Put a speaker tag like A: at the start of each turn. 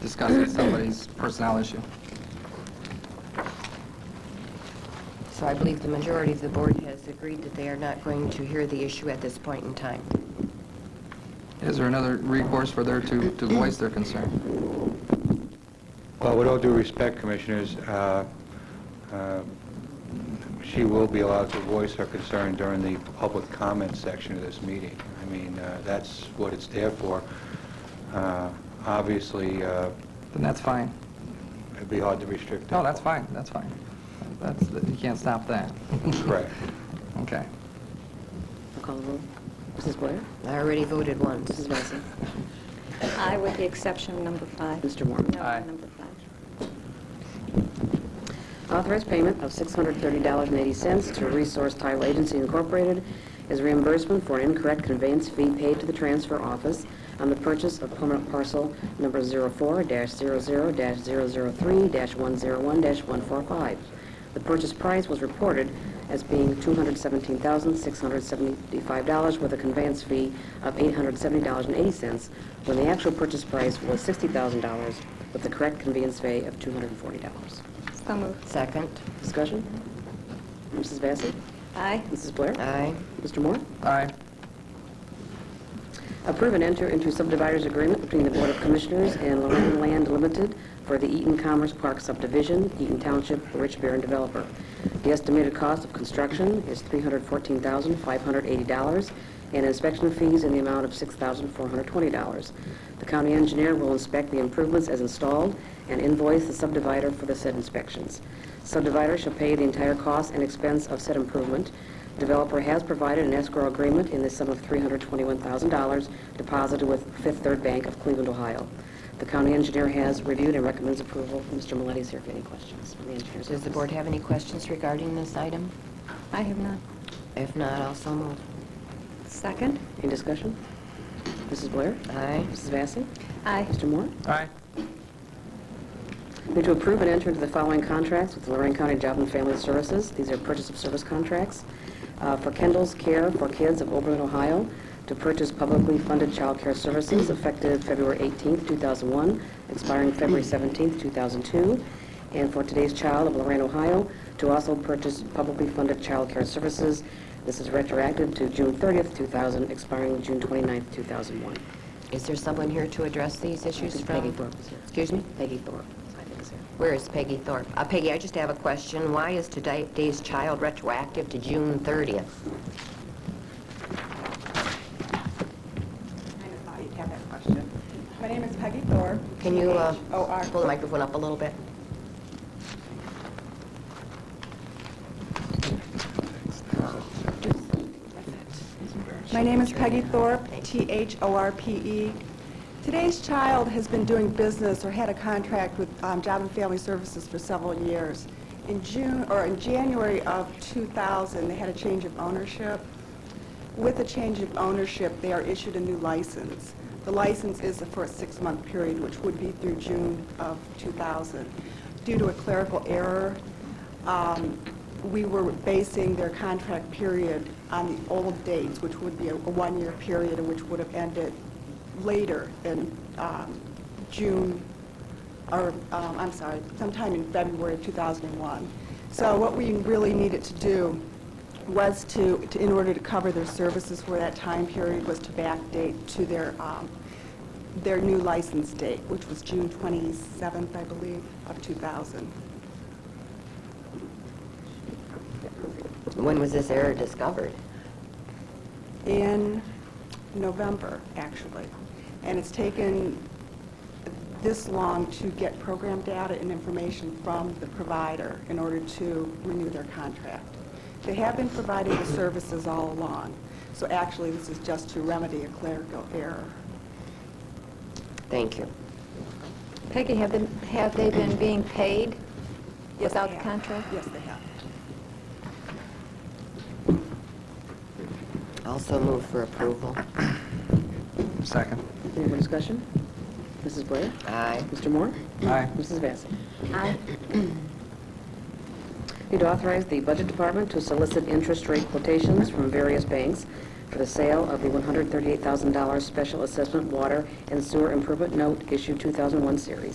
A: discussing somebody's personnel issue.
B: So I believe the majority of the board has agreed that they are not going to hear the issue at this point in time.
A: Is there another recourse for there to, to voice their concern?
C: Well, with all due respect, Commissioners, uh, uh, she will be allowed to voice her concern during the public comment section of this meeting. I mean, uh, that's what it's there for. Uh, Obviously, uh,
A: Then that's fine.
C: it'd be hard to restrict that.
A: No, that's fine, that's fine. That's, you can't stop that.
C: Correct.
A: Okay.
D: Call the roll. Mrs. Blair?
B: I already voted once.
D: Mrs. Vacy?
E: I with the exception of number five.
D: Mr. Moore?
E: No,
A: Aye.
E: number five.
D: Authorized payment of $630.80 to Resource Title Agency Incorporated as reimbursement for an incorrect conveyance fee paid to the transfer office on the purchase of permanent parcel number 04-00-003-101-145. The purchase price was reported as being $217,675 with a conveyance fee of $870.80, when the actual purchase price was $60,000 with the correct conveyance fee of $240.
E: So moved.
B: Second?
D: Discussion? Mrs. Vacy?
E: Aye.
D: Mrs. Blair?
B: Aye.
D: Mr. Moore?
A: Aye.
D: Approve and enter into subdividers agreement between the Board of Commissioners and Lorraine Land Limited for the Eaton Commerce Park subdivision, Eaton Township, Rich Baron developer. The estimated cost of construction is $314,580, and inspection fees in the amount of $6,420. The county engineer will inspect the improvements as installed and invoice the subdivider for the said inspections. Subdivider shall pay the entire cost and expense of said improvement. Developer has provided an escrow agreement in the sum of $321,000 deposited with Fifth Third Bank of Cleveland, Ohio. The county engineer has reviewed and recommends approval. Mr. Milletti's here if any questions from the engineer's
B: Does the
D: office.
B: board have any questions regarding this item?
E: I have none.
B: If not, I'll so move.
E: Second?
D: Any discussion? Mrs. Blair?
B: Aye.
D: Mrs. Vacy?
E: Aye.
D: Mr. Moore?
A: Aye.
D: Move to approve and enter into the following contracts with Lorraine County Job and Family Services. These are purchase of service contracts uh, for Kendall's Care for Kids of Oberlin, Ohio, to purchase publicly funded child care services effective February 18, 2001, expiring February 17, 2002, and for Today's Child of Lorraine, Ohio, to also purchase publicly funded child care services. This is retroactive to June 30, 2000, expiring June 29, 2001.
B: Is there someone here to address these issues
D: think
B: from?
D: Peggy Thorpe is here.
B: Excuse me?
D: Peggy Thorpe, I think is here.
B: Where is Peggy Thorpe? Uh, Peggy, I just have a question. Why is today's child retroactive to June 30th?
F: I thought you'd have that question. My name is Peggy Thorpe.
B: Can you uh,
F: T-H-O-R.
B: pull the microphone up a little bit?
F: My name is Peggy Thorpe, T-H-O-R-P-E. E. Today's Child has been doing business or had a contract with um, Job and Family Services for several years. In June, or in January of 2000, they had a change of ownership. With the change of ownership, they are issued a new license. The license is for a six-month period, which would be through June of 2000. Due to a clerical error, um, we were basing their contract period on the old dates, which would be a a one-year period, and which would have ended later than um, June, or, um, I'm sorry, sometime in February of 2001. So what we really needed to do was to, to- in order to cover their services for that time period, was to backdate to their, um, their new license date, which was June 27th, I believe, of 2000.
B: When was this error discovered?
F: in November, actually. And it's taken this long to get program data and information from the provider in order to renew their contract. They have been providing the services all along, so actually, this is just to remedy a clerical error.
B: Thank you.
E: Peggy, have them- have they been being paid
F: Yes, they
E: without the
F: have.
E: contract?
F: Yes, they have.
B: Also move for approval.
A: Second.
D: Any more discussion? Mrs. Blair?
B: Aye.
D: Mr. Moore?
A: Aye.
D: Mrs. Vacy?
E: Aye.
D: Need to authorize the Budget Department to solicit interest rate quotations from various banks for the sale of the $138,000 Special Assessment Water and Sewer Improvement Note Issue 2001 Series.